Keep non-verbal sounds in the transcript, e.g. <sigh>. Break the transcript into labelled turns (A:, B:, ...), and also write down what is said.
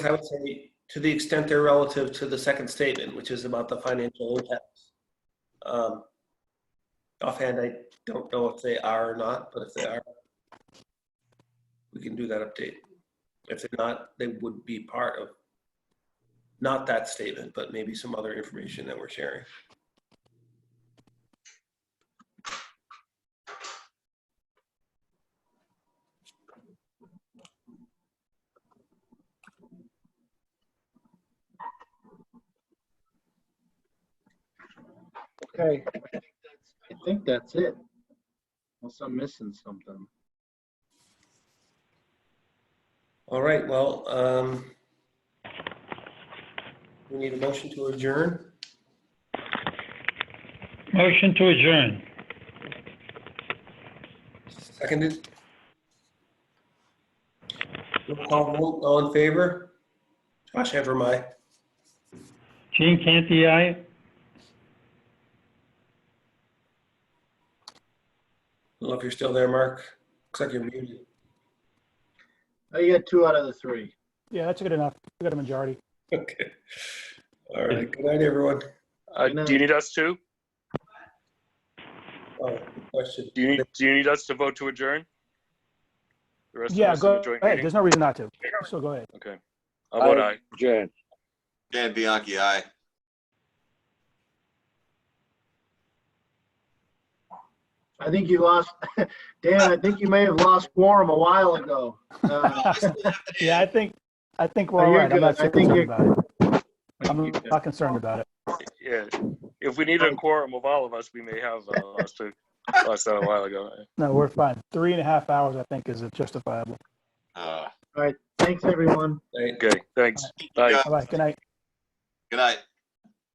A: I would say, to the extent they're relative to the second statement, which is about the financial impacts. Um, Offhand, I don't know if they are or not, but if they are, we can do that update. If they're not, they would be part of, not that statement, but maybe some other information that we're sharing.
B: Okay, I think that's- I think that's it. Unless I'm missing something.
A: All right, well, um, we need a motion to adjourn.
C: Motion to adjourn.
A: Seconded. Roll call vote, all in favor? Josh Evermy, aye.
C: Gene Canty, aye.
A: Don't know if you're still there, Mark. Looks like you're muted. <laughs>
B: Oh, you got two out of the three.
D: Yeah, that's good enough. We got a majority.
A: Okay. All right, good night, everyone.
E: Uh,
B: Good
E: do you need us to?
A: Oh, question.
E: Do you need, do you need us to vote to adjourn? The rest of
D: Yeah,
E: us in the
D: go
E: joint
D: ahead.
E: meeting?
D: There's no reason not to. So go
E: <laughs>
D: ahead.
E: Okay. I'll vote aye.
C: Adjourn.
F: Dan Bianchi, aye.
B: I think you lost, <laughs> Dan, I think you may have lost quorum a while ago.
D: <laughs>
B: Uh,
D: Yeah, I think, I think we're
B: No,
D: all
B: you're
D: right. I'm not
B: good. I think
D: concerned
B: you're
D: about it. I'm not concerned about it.
E: Yeah. If we needed a quorum of all of us, we may have uh, lost, it- lost that a while ago.
D: No, we're fine. Three and a half hours, I think, is justifiable.
F: Uh,
B: Thanks, everyone.
A: Night.
E: Okay, thanks. Bye.
D: All right, good night.
F: Good night.